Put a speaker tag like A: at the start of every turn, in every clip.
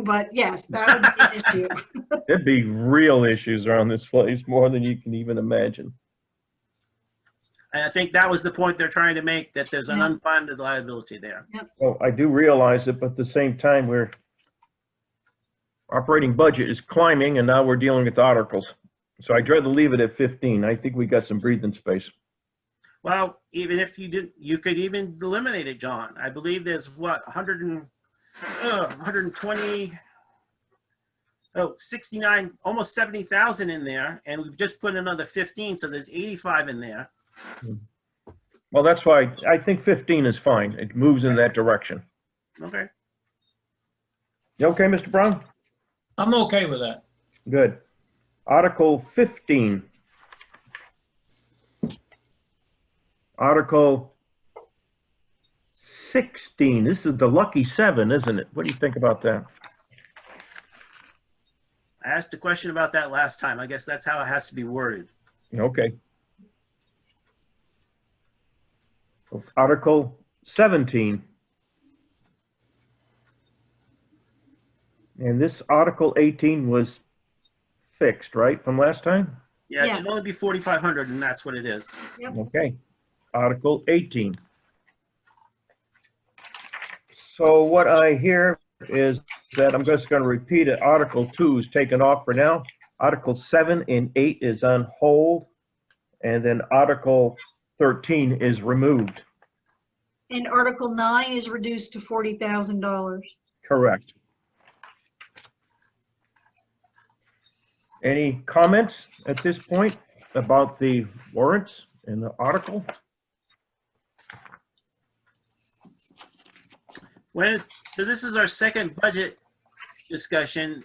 A: but yes, that would be an issue.
B: There'd be real issues around this place, more than you can even imagine.
C: And I think that was the point they're trying to make, that there's an unfunded liability there.
B: Well, I do realize it, but at the same time, we're, operating budget is climbing and now we're dealing with articles. So I'd rather leave it at 15. I think we got some breathing space.
C: Well, even if you didn't, you could even eliminate it, John. I believe there's what, 100 and, uh, 120, oh, 69, almost 70,000 in there, and we've just put another 15, so there's 85 in there.
B: Well, that's why I think 15 is fine. It moves in that direction.
C: Okay.
B: You okay, Mr. Brown?
D: I'm okay with that.
B: Good. Article 15. Article 16. This is the lucky seven, isn't it? What do you think about that?
C: I asked a question about that last time. I guess that's how it has to be worded.
B: Okay. Article 17. And this Article 18 was fixed, right, from last time?
C: Yeah, it
A: Yeah.
C: should only be 4,500, and that's what it is.
B: Okay, Article 18. So what I hear is that, I'm just going to repeat it, Article 2 is taken off for now. Article 7 and 8 is on hold, and then Article 13 is removed.
A: And Article 9 is reduced to $40,000.
B: Correct. Any comments at this point about the warrants and the article?
C: When is, so this is our second budget discussion.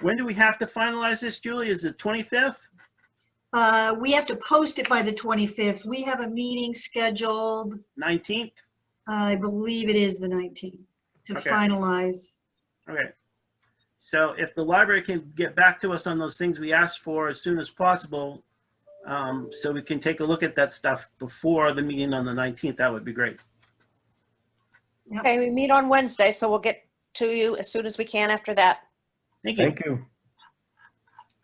C: When do we have to finalize this, Julie? Is it 25th?
A: Uh, We have to post it by the 25th. We have a meeting scheduled,
C: 19th?
A: I believe it is the 19th, to
C: Okay.
A: finalize.
C: Okay. So if the library can get back to us on those things we asked for as soon as possible, um, so we can take a look at that stuff before the meeting on the 19th, that would be great.
E: Okay, we meet on Wednesday, so we'll get to you as soon as we can after that.
C: Thank you.
B: Thank you.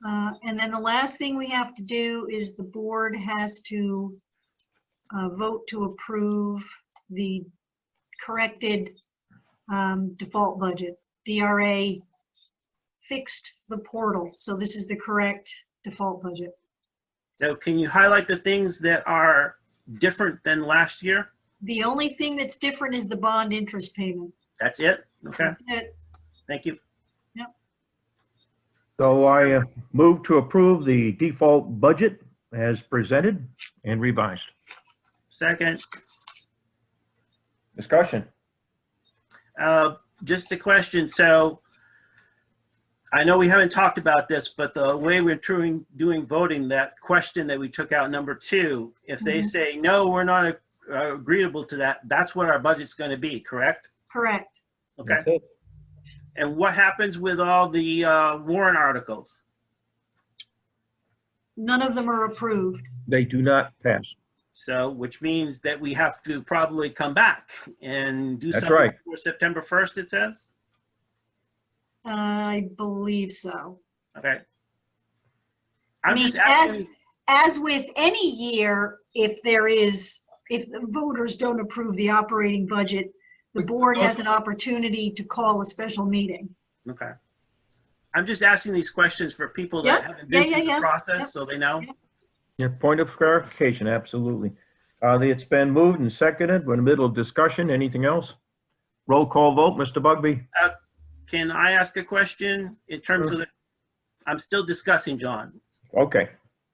A: Uh, And then the last thing we have to do is the board has to uh, vote to approve the corrected um, default budget. DRA fixed the portal, so this is the correct default budget.
C: So can you highlight the things that are different than last year?
A: The only thing that's different is the bond interest payment.
C: That's it? Okay,
A: That's it.
C: thank you.
B: So I uh, move to approve the default budget as presented and revised.
C: Second,
B: Discussion.
C: uh, just a question, so I know we haven't talked about this, but the way we're doing, doing voting, that question that we took out, number two, if they
A: Mhm.
C: say, no, we're not uh, agreeable to that, that's what our budget's gonna be, correct?
A: Correct.
C: Okay,
B: That's it.
C: and what happens with all the uh, warrant articles?
A: None of them are approved.
B: They do not pass.
C: So, which means that we have to probably come back and do
B: That's
C: something
B: right.
C: for September 1st, it says?
A: I believe so.
C: Okay. I'm
A: mean,
C: just
A: as-
C: asking,
A: As with any year, if there is, if the voters don't approve the operating budget, the board has an opportunity to call a special meeting.
C: okay. I'm just asking these questions for people that
A: Yeah,
C: haven't
A: yeah, yeah,
C: been through the
A: yeah, yeah.
C: process, so they know.
B: Yeah, point of clarification, absolutely. Uh, It's been moved and seconded. We're in the middle of discussion. Anything else? Roll call vote, Mr. Bugby?
C: Can I ask a question in terms of the, I'm still discussing, John.
B: Okay,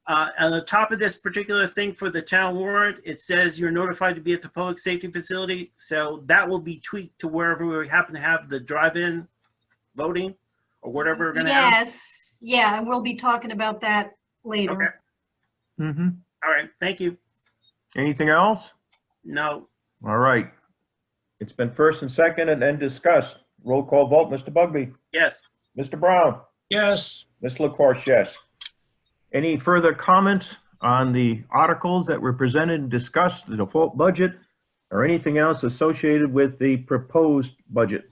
C: Uh, on the top of this particular thing for the town warrant, it says you're notified to be at the public safety facility. So that will be tweaked to wherever we happen to have the drive-in voting or whatever we're gonna have.
A: Yes, yeah, and we'll be talking about that
C: Okay,
A: later.
B: mm-hmm.
C: all right, thank you.
B: Anything else?
C: No,
B: All right. It's been first and seconded and discussed. Roll call vote, Mr. Bugby?
C: yes,
B: Mr. Brown?
D: Yes,
B: Ms. LaCourse, yes. Any further comments on the articles that were presented and discussed, the default budget, or anything else associated with the proposed budget?